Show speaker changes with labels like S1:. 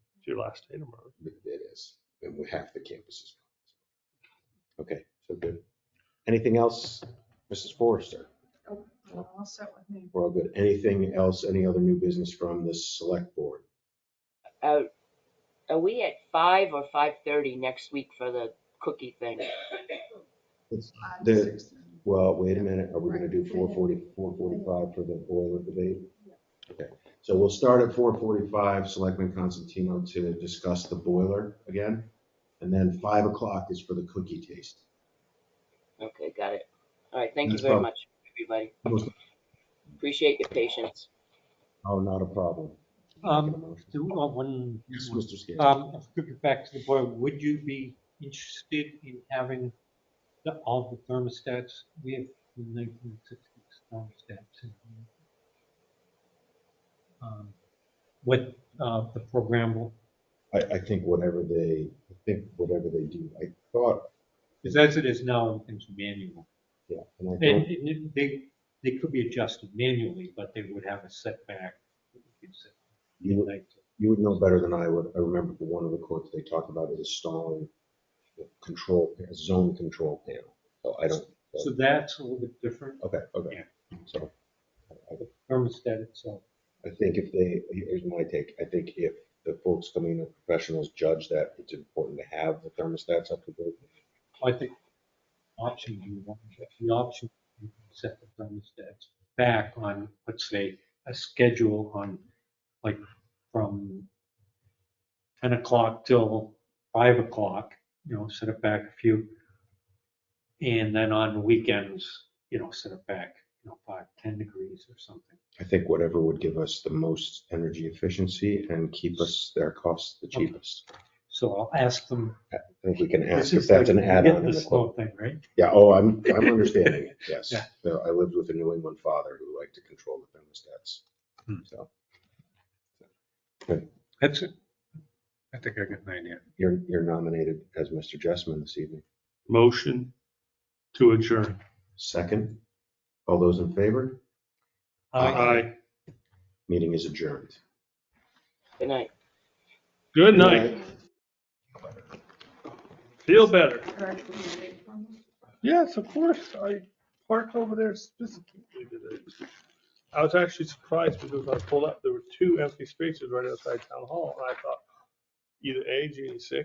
S1: your last day tomorrow.
S2: It is, and we half the campus is gone. Okay, so good. Anything else, Mrs. Forrester?
S3: Oh, Well, I'll set with me.
S2: We're all good. Anything else, any other new business from the select board?
S4: Uh, are we at five or five thirty next week for the cookie thing?
S3: Five,
S2: The-
S3: six, seven.
S2: Well, wait a minute, are we gonna do 440, 445 for the boiler debate? Okay, so we'll start at four forty-five, Selectman Constantino to discuss the boiler again. And then five o'clock is for the cookie taste.
S4: Okay, got it. All right, thank you
S2: That's
S4: very
S2: fine.
S4: much, everybody.
S2: Most-
S4: Appreciate your patience.
S2: Oh, not a problem.
S5: Um, do, uh, one,
S2: Yes, Mr. Scanlon.
S5: um, if we get back to the boiler, would you be interested in having the, all the thermostats? We have the nineteen sixties thermostats in here. Um, With, uh, the programmable,
S2: I, I think whatever they, I think whatever they do, I thought,
S5: because as it is now, everything's manual.
S2: yeah, and I
S5: And
S2: thought,
S5: it- it- they, they could be adjusted manually, but they would have a setback. that you could set
S2: you would,
S5: like-
S2: you would know better than I would. I remember the one of the quotes they talked about is installing a control, a zone control panel. So I don't,
S5: So that's a little bit different,
S2: okay, okay. So I-
S5: the thermostat itself.
S2: I think if they, here's my take, I think if the folks coming in, professionals judge that it's important to have the thermostats up to date.
S5: I think option you want, the option you can set the thermostats back on, let's say, a schedule on like from ten o'clock till five o'clock, you know, set it back a few. And then on weekends, you know, set it back, you know, five, ten degrees or something.
S2: I think whatever would give us the most energy efficiency and keep us, their costs the
S5: Okay.
S2: cheapest.
S5: So I'll ask them.
S2: I think we can ask
S5: This
S2: if
S5: is
S2: that's
S5: like
S2: an
S5: the-
S2: add-on. in
S5: The
S2: the quote.
S5: snow thing, right?
S2: Yeah, oh, I'm, I'm understanding it, yes.
S5: Yeah.
S2: So I lived with a New England father who liked to control the thermostats.
S5: Hmm.
S2: So
S5: That's it. I think I got an idea.
S2: you're, you're nominated as Mr. Jessman this evening.
S1: Motion to adjourn.
S2: Second, all those in favor?
S5: Uh,
S1: Aye.
S2: Meeting is adjourned.
S4: Good night.
S1: Good night. Feel better.
S3: Correct, we can wait for them.
S1: Yes, of course. I parked over there specifically today. I was actually surprised because when I pulled up, there were two empty spaces right outside town hall. And I thought either A, G, sick